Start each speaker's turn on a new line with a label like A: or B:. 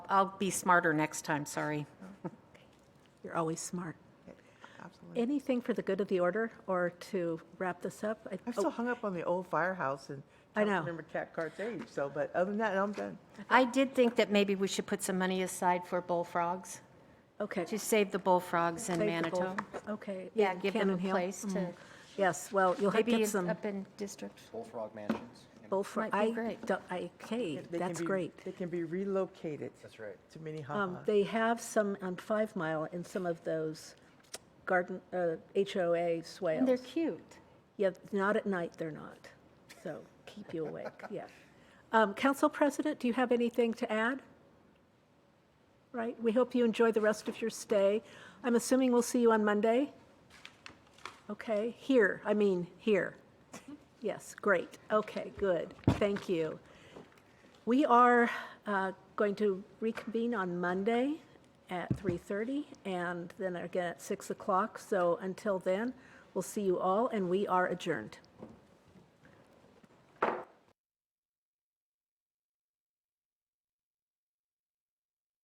A: I'll be smarter next time, sorry.
B: You're always smart.
C: Absolutely.
B: Anything for the good of the order or to wrap this up? I-
C: I'm
B: oh,
C: still hung up on the old firehouse and
B: I
C: don't
B: know.
C: remember Cat Cart's age, so, but other than that, I'm done.
A: I did think that maybe we should put some money aside for bullfrogs,
B: Okay.
A: to save the bullfrogs in
B: Save the bull-
A: Manitou.
B: Okay.
A: Yeah,
B: in
A: give them a
B: Cannon Hill? Mm.
A: place to,
B: Yes, well, you'll have to
A: maybe
B: get
A: it's
B: some
A: up in District.
D: Bullfrog mansions.
B: bullfrog.
A: might be
B: I
A: great.
B: don't- I- Okay,
C: They can
B: that's
C: be-
B: great.
C: They can be relocated.
D: That's right.
C: To Minnehaha.
B: Um, They have some on Five Mile in some of those garden, uh, HOA
A: And they're
B: swales.
A: cute.
B: Yeah, not at night, they're not. So keep you awake, yeah. Um, Council President, do you have anything to add? Right, we hope you enjoy the rest of your stay. I'm assuming we'll see you on Monday? Okay, here, I mean, here. Yes, great, okay, good, thank you. We are uh, going to reconvene on Monday at 3:30 and then again at 6 o'clock. So until then, we'll see you all, and we are adjourned.